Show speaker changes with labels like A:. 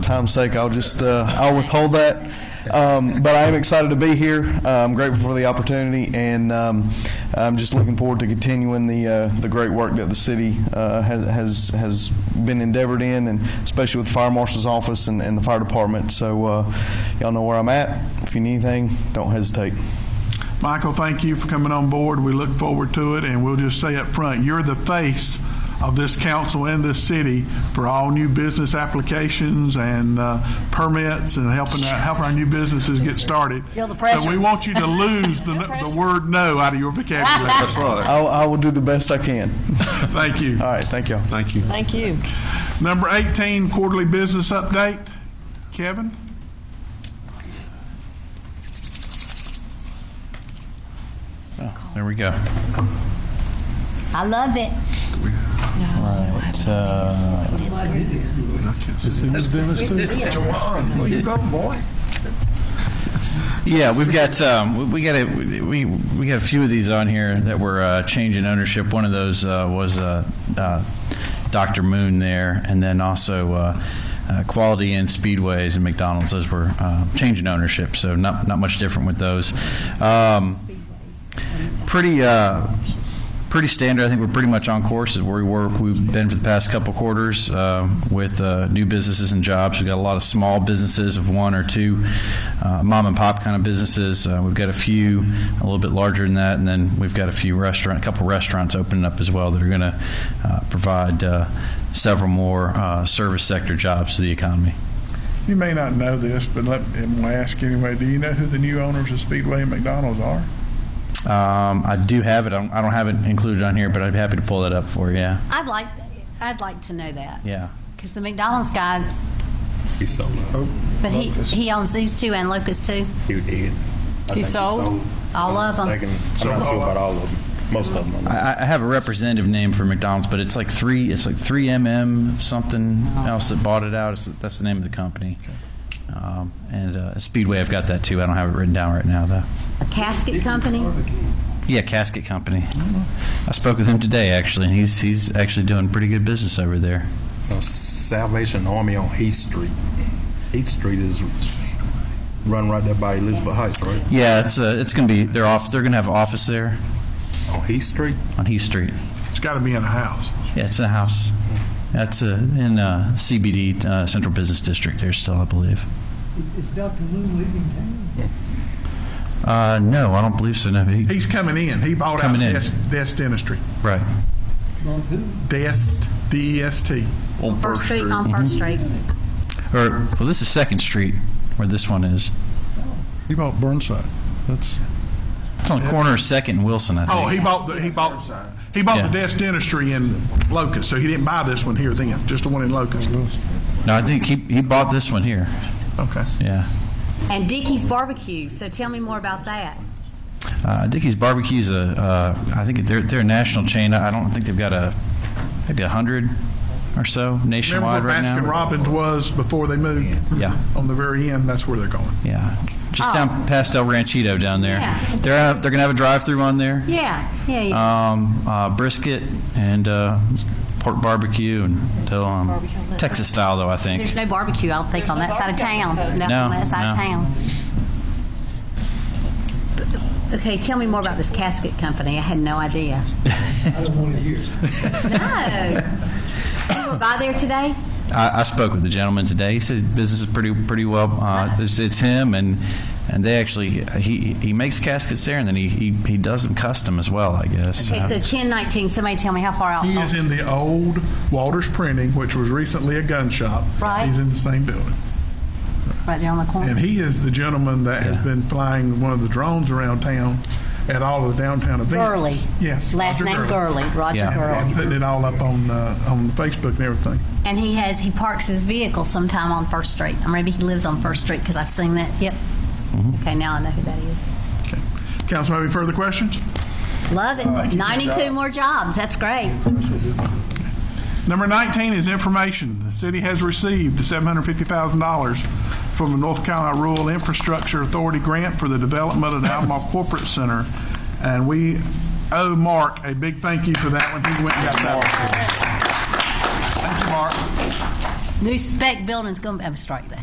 A: time's sake, I'll just, uh, I'll withhold that. Um, But I am excited to be here. Uh, I'm grateful for the opportunity, and um, I'm just looking forward to continuing the, uh, the great work that the city uh, has- has, has been endeavored in, and especially with the Fire Marshal's Office and, and the Fire Department. So uh, y'all know where I'm at. If you need anything, don't hesitate.
B: Michael, thank you for coming on board. We look forward to it, and we'll just say up front, you're the face of this council and this city for all new business applications and uh, permits and helping out, helping our new businesses get started.
C: Feel the pressure.
B: So we want you to lose the, the word "no" out of your vocabulary. That's right.
A: I'll, I will do the best I can.
B: Thank you.
A: All right, thank y'all.
B: Thank you.
C: Thank you.
B: Number 18, quarterly business update. Kevin?
D: There we go.
C: I love it.
D: Yeah, we've got um, we- we got a, we we got a few of these on here that were uh, changing ownership. One of those uh, was uh, uh, Dr. Moon there, and then also. Uh, uh, Quality Inn, Speedways, and McDonald's; those were uh, changing ownership, so not not much different with those. Um, pretty uh, pretty standard. I think we're pretty much on course is where we were. We've been for the past couple quarters uh, with uh, new businesses and jobs. We've got a lot of small businesses of one or two uh, mom and pop kind of businesses. Uh, we've got a few a little bit larger than that, and then we've got a few restaurant, a couple restaurants opening up as well that are going to uh, provide uh, several more uh, service sector jobs to the economy.
B: You may not know this, but let me ask anyway. Do you know who the new owners of Speedway and McDonald's are?
D: Um, I do have it. I don't, I don't have it included on here, but I'd be happy to pull that up for you. Yeah.
C: I'd like, I'd like to know that.
D: Yeah.
C: Because the McDonald's guy. But he, he owns these two and Lucas too.
E: He did. I
C: He
E: think
C: sold? All of 'em?
E: I'm not sure about all of them. Most of them.
D: I, I have a representative name for McDonald's, but it's like three. It's like three MM something else that bought it out. It's, that's the name of the company. Um, and uh, Speedway, I've got that too. I don't have it written down right now though.
C: A casket company.
D: Yeah, Casket Company. I spoke with him today actually, and he's he's actually doing pretty good business over there.
E: Uh, Salvation Army on Heath Street. Heath Street is run right there by Elizabeth Heights, right?
D: Yeah, it's uh, it's gonna be they're off. They're gonna have an office there
E: On Heath Street?
D: on Heath Street.
B: It's got to be in a house.
D: Yeah, it's a house. That's uh, in uh, CBD uh, Central Business District. There still, I believe.
F: Is Dr. Moon leaving town?
D: Uh, no, I don't believe so. No, he,
B: He's coming in. He bought
D: Coming in.
B: out Des, Des Dentistry.
D: right.
F: On who?
B: Dest, D E S T.
C: On First Street, Mm-hmm. on First Street.
D: Or well, this is Second Street where this one is.
G: He bought Burnside. That's
D: It's on the corner of Second and Wilson, I think.
B: Oh, he bought the he bought he bought the
D: Yeah.
B: Des Dentistry in Locust, so he didn't buy this one here then, just the one in Locust.
D: no, I think he he bought this one here.
B: Okay.
D: Yeah.
C: And Dickie's Barbecue. So tell me more about that.
D: Uh, Dickie's Barbecue's a, uh, I think they're they're a national chain. I don't think they've got a maybe a hundred or so
B: Remember
D: nationwide
B: where
D: right
B: Baskin
D: now.
B: Robbins was before they moved?
D: Yeah.
B: On the very end, that's where they're going.
D: Yeah, just
C: Oh.
D: down past El Ranchito down there.
C: Yeah.
D: They're out, they're gonna have a drive-through on there.
C: Yeah, yeah, yeah.
D: Um, uh, brisket and uh, pork barbecue and till, um, Texas style though I think.
C: There's no barbecue, I don't think, on that side of town. Nothing on that side of
D: no.
C: town. Okay, tell me more about this casket company. I had no idea.
F: I don't want to hear.
C: No. you were by there today?
D: I, I spoke with the gentleman today. He says business is pretty pretty well. Uh, it's, it's him and and they actually he he makes caskets there and then he he, he does them custom as well. I guess.
C: Okay,
D: Uh,
C: so 1019, somebody tell me how far out.
B: He is in the old Walters Printing, which was recently a gun shop.
C: Right.
B: He's in the same building.
C: Right there on the corner.
B: And he is the gentleman that has been flying one of the drones around town at all of the downtown events.
C: Gurley.
B: Yes.
C: Last
B: Roger
C: name
B: Gurley.
C: Gurley, Roger
D: Yeah.
B: And
C: Gurley.
B: putting it all up on, uh, on Facebook and everything.
C: And he has, he parks his vehicle sometime on First Street. Or maybe he lives on First Street because I've seen that. Yep.
B: Mm-hmm.
C: Okay, now I know who that is.
B: Okay. Council, have any further questions?
C: Love it. 92 more jobs. That's great.
B: Number 19 is information. The city has received $750,000 from the North Carolina Rural Infrastructure Authority grant for the development of the Alamo Corporate Center. And we owe Mark a big thank you for that one. He went and got that one. Thank you, Mark.
C: New spec building's gonna, I'm strike that.